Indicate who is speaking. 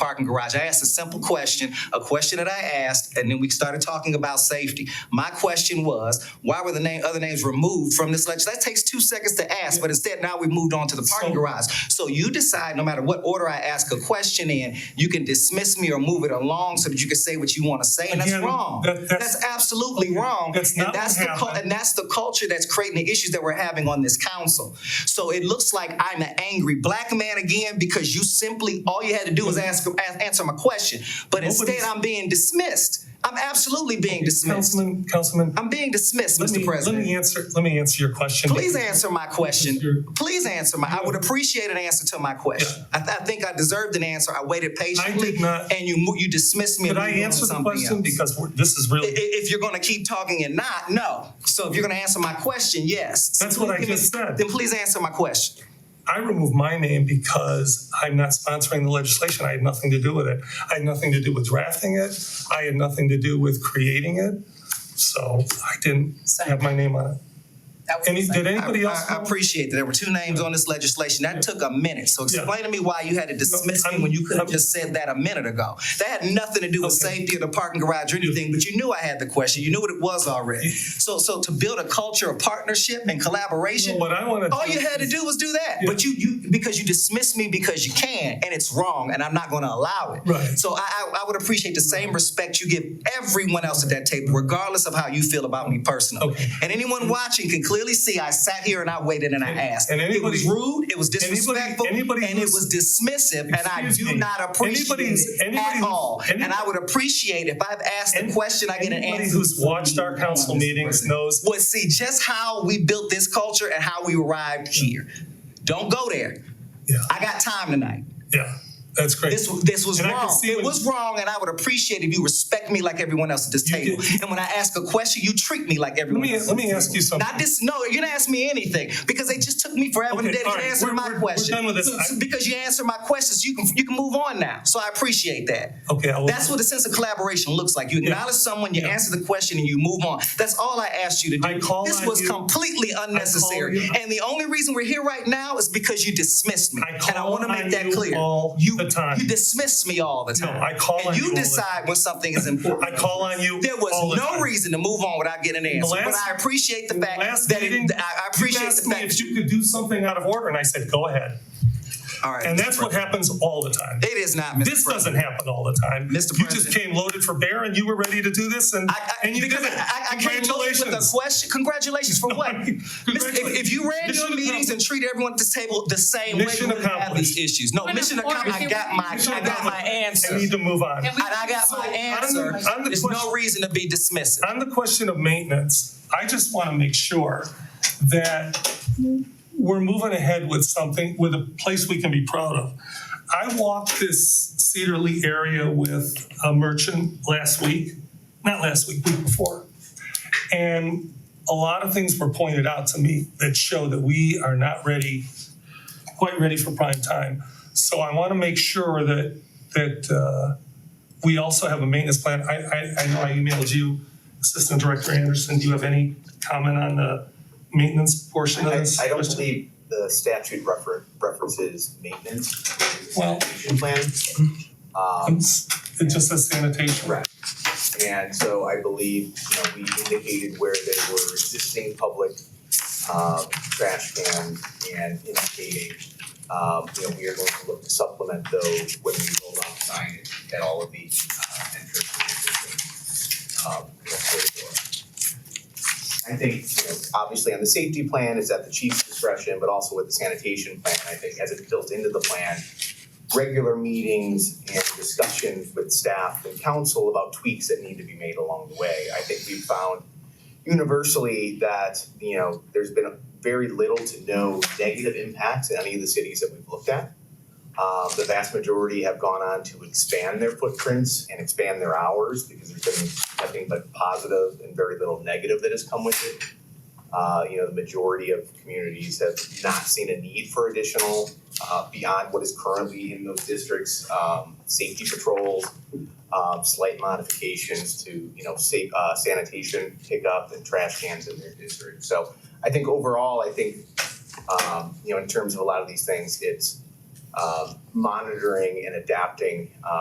Speaker 1: parking garage. I asked a simple question, a question that I asked, and then we started talking about safety. My question was, why were the name, other names removed from this lecture? That takes two seconds to ask, but instead now we moved on to the parking garage. So you decide, no matter what order I ask a question in, you can dismiss me or move it along so that you can say what you want to say, and that's
Speaker 2: Again,
Speaker 1: wrong.
Speaker 2: that- that's-
Speaker 1: That's absolutely wrong.
Speaker 2: That's
Speaker 1: And
Speaker 2: not what
Speaker 1: the cul-
Speaker 2: happened.
Speaker 1: And and that's the culture that's creating the issues that we're having on this council. So it looks like I'm an angry black man again because you simply all you had to do was ask a- answer my question, but instead
Speaker 2: Nobody's-
Speaker 1: I'm being dismissed. I'm absolutely being dismissed.
Speaker 2: Councilman, Councilman,
Speaker 1: I'm being dismissed,
Speaker 2: let
Speaker 1: Mr.
Speaker 2: me, let me
Speaker 1: President.
Speaker 2: answer, let me answer your question.
Speaker 1: Please answer my
Speaker 2: You're-
Speaker 1: question. Please answer my. I would appreciate an answer to my question. I, th- I think I deserved an answer. I waited patiently,
Speaker 2: not-
Speaker 1: and you mo- you dismissed me.
Speaker 2: Could
Speaker 1: and
Speaker 2: I
Speaker 1: moved on to
Speaker 2: answer the
Speaker 1: something
Speaker 2: question?
Speaker 1: else.
Speaker 2: Because we're- this is really.
Speaker 1: I- if you're gonna keep talking and not, no. So if you're gonna answer my question, yes. So
Speaker 2: That's what I
Speaker 1: give me-
Speaker 2: just said.
Speaker 1: Then please answer my question.
Speaker 2: I removed my name because I'm not sponsoring the legislation. I had nothing to do with it. I had nothing to do with drafting it. I had nothing to do with creating it. So I didn't have my name on it. Any, did
Speaker 1: I,
Speaker 2: anybody else?
Speaker 1: I- I
Speaker 2: know?
Speaker 1: appreciate that there were two names on this legislation. That took a minute. So
Speaker 2: Yeah.
Speaker 1: explain to me why you had to dismiss me
Speaker 2: I'm-
Speaker 1: when you could have
Speaker 2: I'm-
Speaker 1: just said that a minute ago. That had nothing to do with
Speaker 2: Okay.
Speaker 1: safety or the parking garage or anything, but you knew I had the question. You knew what it was already. So, so to build a culture of partnership and collaboration,
Speaker 2: What I wanna
Speaker 1: all
Speaker 2: do
Speaker 1: you had to do was do that. But you, you, because you dismissed me because you can, and it's wrong, and I'm not gonna allow it.
Speaker 2: Right.
Speaker 1: So I, I, I would appreciate the same respect you give everyone else at that table, regardless of how you feel about me personally.
Speaker 2: Okay.
Speaker 1: And anyone watching can clearly see I sat here and I waited and I asked.
Speaker 2: and
Speaker 1: It was
Speaker 2: anybody-
Speaker 1: rude, it was
Speaker 2: anybody-
Speaker 1: disrespectful, and it
Speaker 2: anybody who's-
Speaker 1: was dismissive, and I
Speaker 2: Excuse
Speaker 1: do
Speaker 2: me.
Speaker 1: not appreciate
Speaker 2: Anybody who's-
Speaker 1: it
Speaker 2: anybody
Speaker 1: at
Speaker 2: who's-
Speaker 1: all. And I would appreciate if I've asked a
Speaker 2: Any-
Speaker 1: question, I get an
Speaker 2: Anybody
Speaker 1: answer.
Speaker 2: who's watched our council meetings knows
Speaker 1: was see just how we built this culture and how we arrived here. Don't go there.
Speaker 2: Yeah,
Speaker 1: I got time tonight.
Speaker 2: yeah, that's great.
Speaker 1: This this was
Speaker 2: And I can
Speaker 1: wrong.
Speaker 2: see
Speaker 1: It
Speaker 2: when-
Speaker 1: was wrong, and I would appreciate if you respect me like everyone else at this
Speaker 2: You
Speaker 1: table.
Speaker 2: did.
Speaker 1: And when I ask a question, you treat me like
Speaker 2: Let
Speaker 1: everyone
Speaker 2: me,
Speaker 1: else.
Speaker 2: let me ask you something.
Speaker 1: Not this. No, you didn't ask me anything because they just took me forever
Speaker 2: Okay,
Speaker 1: today to
Speaker 2: all right,
Speaker 1: answer
Speaker 2: we're-
Speaker 1: my
Speaker 2: we're- we're
Speaker 1: question.
Speaker 2: done with this.
Speaker 1: So- so
Speaker 2: I-
Speaker 1: because you answered my questions, you can you can move on now. So I appreciate that.
Speaker 2: Okay, I will.
Speaker 1: That's what the sense of collaboration looks like. You acknowledge someone, you
Speaker 2: Yeah.
Speaker 1: answer the question, and you move on. That's all I asked you to do.
Speaker 2: I call
Speaker 1: this
Speaker 2: on
Speaker 1: was
Speaker 2: you-
Speaker 1: completely unnecessary.
Speaker 2: you-
Speaker 1: And the only reason we're here right now is because you dismissed me.
Speaker 2: I
Speaker 1: and I
Speaker 2: call
Speaker 1: want to make
Speaker 2: on
Speaker 1: that
Speaker 2: you
Speaker 1: clear.
Speaker 2: all
Speaker 1: you,
Speaker 2: the time.
Speaker 1: you dismiss me all the time.
Speaker 2: I call
Speaker 1: and
Speaker 2: on you all
Speaker 1: you
Speaker 2: the-
Speaker 1: decide when something is important.
Speaker 2: I call on you
Speaker 1: There was
Speaker 2: all the
Speaker 1: no
Speaker 2: time.
Speaker 1: reason to move on without getting an answer. but
Speaker 2: last-
Speaker 1: I appreciate the fact
Speaker 2: Last
Speaker 1: that
Speaker 2: meeting,
Speaker 1: it, I- I
Speaker 2: you
Speaker 1: appreciate
Speaker 2: asked
Speaker 1: the
Speaker 2: me
Speaker 1: fact.
Speaker 2: if you could do something out of order, and I said, go ahead.
Speaker 1: all right,
Speaker 2: And
Speaker 1: Mr.
Speaker 2: that's what
Speaker 1: President.
Speaker 2: happens all the time.
Speaker 1: It is not, Mr.
Speaker 2: This
Speaker 1: President.
Speaker 2: doesn't happen all the time.
Speaker 1: Mr.
Speaker 2: You just
Speaker 1: President.
Speaker 2: came loaded for bear and you were ready to do this and,
Speaker 1: I, I,
Speaker 2: and you did
Speaker 1: because
Speaker 2: it.
Speaker 1: I, I, I can't go with a
Speaker 2: Congratulations.
Speaker 1: question. Congratulations for
Speaker 2: No,
Speaker 1: what?
Speaker 2: I
Speaker 1: Miss-
Speaker 2: mean,
Speaker 1: If, if you ran
Speaker 2: congratulations.
Speaker 1: your
Speaker 2: Mission
Speaker 1: meetings and treated everyone at this table the same way,
Speaker 2: Mission
Speaker 1: we wouldn't have
Speaker 2: accomplished.
Speaker 1: these issues. No,
Speaker 3: Point of
Speaker 1: mission
Speaker 3: order.
Speaker 1: accomplished. I got my,
Speaker 2: Mission
Speaker 1: I got my
Speaker 2: accomplished.
Speaker 1: answer.
Speaker 2: I need to move on.
Speaker 3: And
Speaker 1: And
Speaker 3: we-
Speaker 1: I got
Speaker 3: So,
Speaker 1: my
Speaker 3: on the-
Speaker 1: answer.
Speaker 2: on the
Speaker 1: There's no
Speaker 2: question-
Speaker 1: reason to be dismissive.
Speaker 2: On the question of maintenance, I just want to make sure that we're moving ahead with something, with a place we can be proud of. I walked this Cedarly area with a merchant last week, not last week, week before. And a lot of things were pointed out to me that show that we are not ready, quite ready for prime time. So I want to make sure that, that, uh, we also have a maintenance plan. I, I, I know I emailed you, Assistant Director Anderson, do you have any comment on the maintenance portion of
Speaker 4: I,
Speaker 2: this?
Speaker 4: I don't
Speaker 2: question?
Speaker 4: believe the statute refer, references maintenance.
Speaker 2: Well- hmm.
Speaker 4: Sanitation Plan. Um,
Speaker 2: It's- It just says sanitation.
Speaker 4: Correct. and so I believe, you know, we indicated where they were existing public, um, trash cans and indicating, um, you know, we are going to look to supplement those when we roll out signage at all of the, uh, entrances. Um, you know, corridor. I think, you know, obviously on the safety plan, it's at the chief's discretion, but also with the sanitation plan, I think as it's built into the plan, regular meetings and discussions with staff and council about tweaks that need to be made along the way. I think we've found universally that, you know, there's been very little to no negative impacts in any of the cities that we've looked at. Um, the vast majority have gone on to expand their footprints and expand their hours because there's been nothing but positive and very little negative that has come with it. Uh, you know, the majority of communities have not seen a need for additional uh, beyond what is currently in those districts, um, safety patrols, um, slight modifications to, you know, sa- uh, sanitation pickup and trash cans in their district. So I think overall, I think, um, you know, in terms of a lot of these things, it's, um, monitoring and adapting, um,